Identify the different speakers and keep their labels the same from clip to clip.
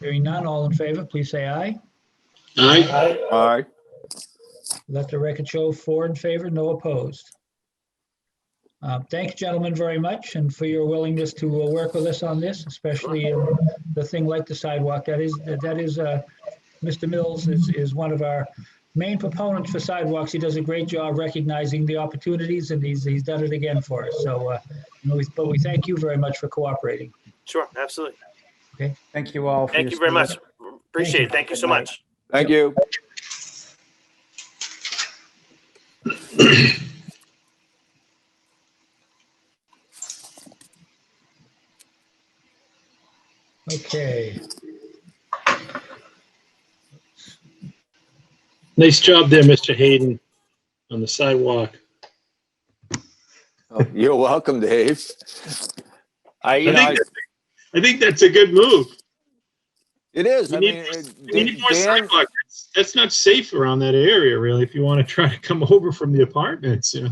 Speaker 1: Hearing none, all in favor, please say aye.
Speaker 2: Aye.
Speaker 3: Aye.
Speaker 1: Let the record show four in favor, no opposed. Uh, Thank you, gentlemen, very much, and for your willingness to uh, work with us on this, especially in the thing like the sidewalk. That is, that is, uh, Mr. Mills is, is one of our main proponents for sidewalks. He does a great job recognizing the opportunities, and he's, he's done it again for us. So, uh, you know, we- but we thank you very much for cooperating.
Speaker 4: Sure, absolutely.
Speaker 5: Thank you all. for
Speaker 4: Thank
Speaker 5: your
Speaker 4: you very
Speaker 5: support.
Speaker 4: much. Appreciate it. Thank you so much.
Speaker 3: Thank you.
Speaker 1: Okay,
Speaker 2: Nice job there, Mr. Hayden, on the sidewalk.
Speaker 3: Oh, You're welcome, Dave. I, you
Speaker 2: I
Speaker 3: know, I-
Speaker 2: think, I think that's a good move.
Speaker 3: it is.
Speaker 2: we
Speaker 3: I
Speaker 2: need-
Speaker 3: mean, it-
Speaker 2: We need more
Speaker 3: Dan,
Speaker 2: sidewalk. That's- That's not safe around that area, really, if you want to try to come over from the apartments, you know.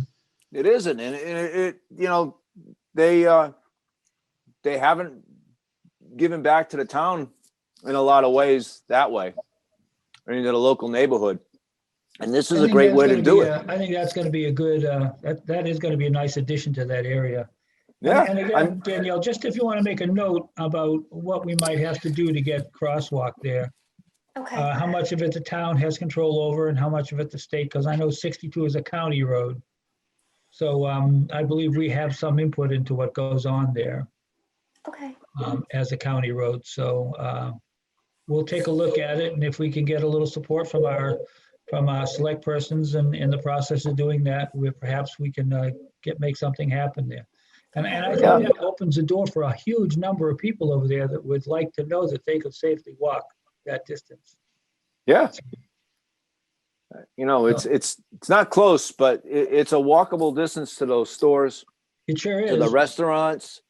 Speaker 3: it isn't. And and it, it, you know, they, uh, they haven't given back to the town in a lot of ways that way. I mean, to the local neighborhood. And this
Speaker 1: I
Speaker 3: is a
Speaker 1: think
Speaker 3: great
Speaker 1: that's
Speaker 3: way to
Speaker 1: gonna
Speaker 3: do
Speaker 1: be
Speaker 3: it.
Speaker 1: a- I think that's going to be a good, uh, that, that is going to be a nice addition to that area.
Speaker 3: Yeah.
Speaker 1: And
Speaker 3: I'm-
Speaker 1: again, Danielle, just if you want to make a note about what we might have to do to get crosswalk there,
Speaker 6: Okay,
Speaker 1: uh, how much of it the town has control over and how much of it the state, because I know 62 is a county road. So um, I believe we have some input into what goes on there
Speaker 6: okay,
Speaker 1: um, as a county road. So uh, we'll take a look at it, and if we can get a little support from our, from our select persons and in the process of doing that, we perhaps we can uh, get, make something happen there. And and I
Speaker 3: Yeah.
Speaker 1: think that opens the door for a huge number of people over there that would like to know that they could safely walk that distance.
Speaker 3: Yeah. You know, it's, it's, it's not close, but it, it's a walkable distance to those stores.
Speaker 1: It sure
Speaker 3: to the
Speaker 1: is.
Speaker 3: restaurants.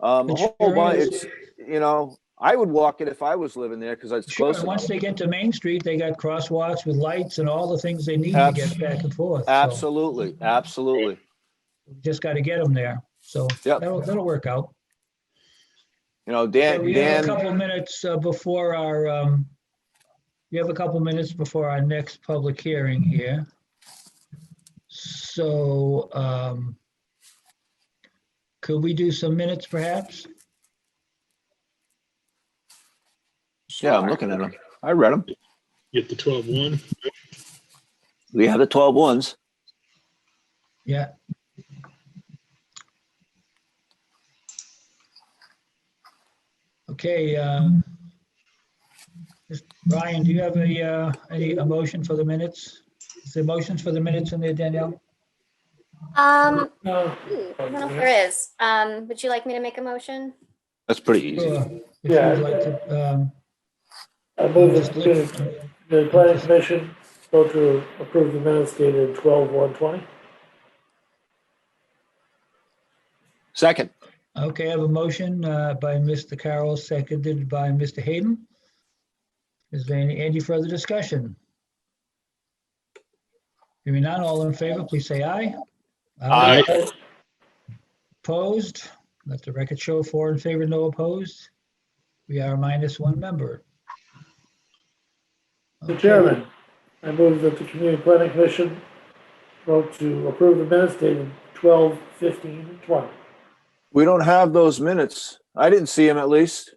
Speaker 3: Um,
Speaker 1: It
Speaker 3: a whole
Speaker 1: sure
Speaker 3: bunch,
Speaker 1: is.
Speaker 3: it's, you know, I would walk it if I was living there because it's
Speaker 1: Sure,
Speaker 3: close.
Speaker 1: and once they get to Main Street, they got crosswalks with lights and all the things they need to
Speaker 3: Abs-
Speaker 1: get back and forth. So
Speaker 3: Absolutely, absolutely.
Speaker 1: Just got to get them there. So
Speaker 3: Yep.
Speaker 1: that'll, that'll work out.
Speaker 3: You know,
Speaker 1: So
Speaker 3: Dan,
Speaker 1: We have a
Speaker 3: Dan,
Speaker 1: couple minutes uh, before our, um, we have a couple minutes before our next public hearing here. So um, could we do some minutes perhaps?
Speaker 3: yeah, I'm looking at them. I read them.
Speaker 2: Get the 12-1.
Speaker 3: We have the twelve ones.
Speaker 1: Yeah. Okay. um, Mr. Brian, do you have a, uh, any, a motion for the minutes? Is there motions for the minutes in there, Danielle?
Speaker 6: um,
Speaker 1: No.
Speaker 6: hmm, I don't know if there is, um, would you like me to make a motion?
Speaker 3: That's pretty easy.
Speaker 1: Sure, If you would like to, um,
Speaker 7: I move
Speaker 1: just
Speaker 7: that
Speaker 1: look-
Speaker 7: the, the planning commission vote to approve the minutes dated twelve one twenty.
Speaker 3: Second,
Speaker 1: Okay, I have a motion uh, by Mr. Carroll, seconded by Mr. Hayden. Is there any, any further discussion? Hearing none, all in favor, please say aye.
Speaker 3: Aye.
Speaker 1: Opposed? Let the record show four in favor, no opposed. We are minus one member.
Speaker 7: The chairman, I move that the community planning commission vote to approve the minutes dated twelve fifteen twenty.
Speaker 3: we don't have those minutes. I didn't see them at least.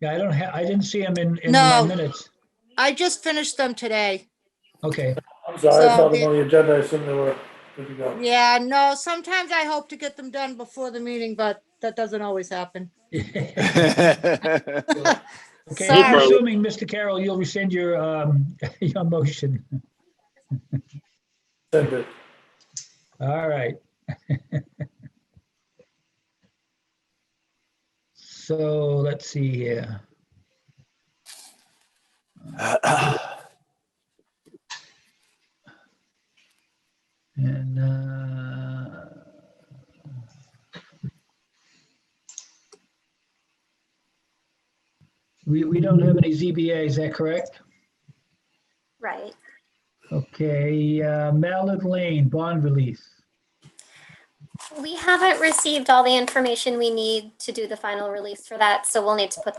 Speaker 1: Yeah, I don't have, I didn't see him in, in my
Speaker 8: No.
Speaker 1: minutes.
Speaker 8: I just finished them today.
Speaker 1: Okay,
Speaker 7: I'm sorry, I
Speaker 8: So
Speaker 7: saw them
Speaker 8: the-
Speaker 7: on the agenda, I assumed they were good to go.
Speaker 8: Yeah, no, sometimes I hope to get them done before the meeting, but that doesn't always happen.
Speaker 1: okay.
Speaker 3: I'll
Speaker 1: I'm
Speaker 8: Sorry.
Speaker 1: assuming, Mr. Carroll, you'll rescind your, um, your motion.
Speaker 7: Send it.
Speaker 1: All right. So let's see here. And uh, we, we don't have any ZBA, is that correct?
Speaker 6: Right,
Speaker 1: Okay, uh, Mallard Lane, bond release.
Speaker 6: we haven't received all the information we need to do the final release for that, so we'll need to put that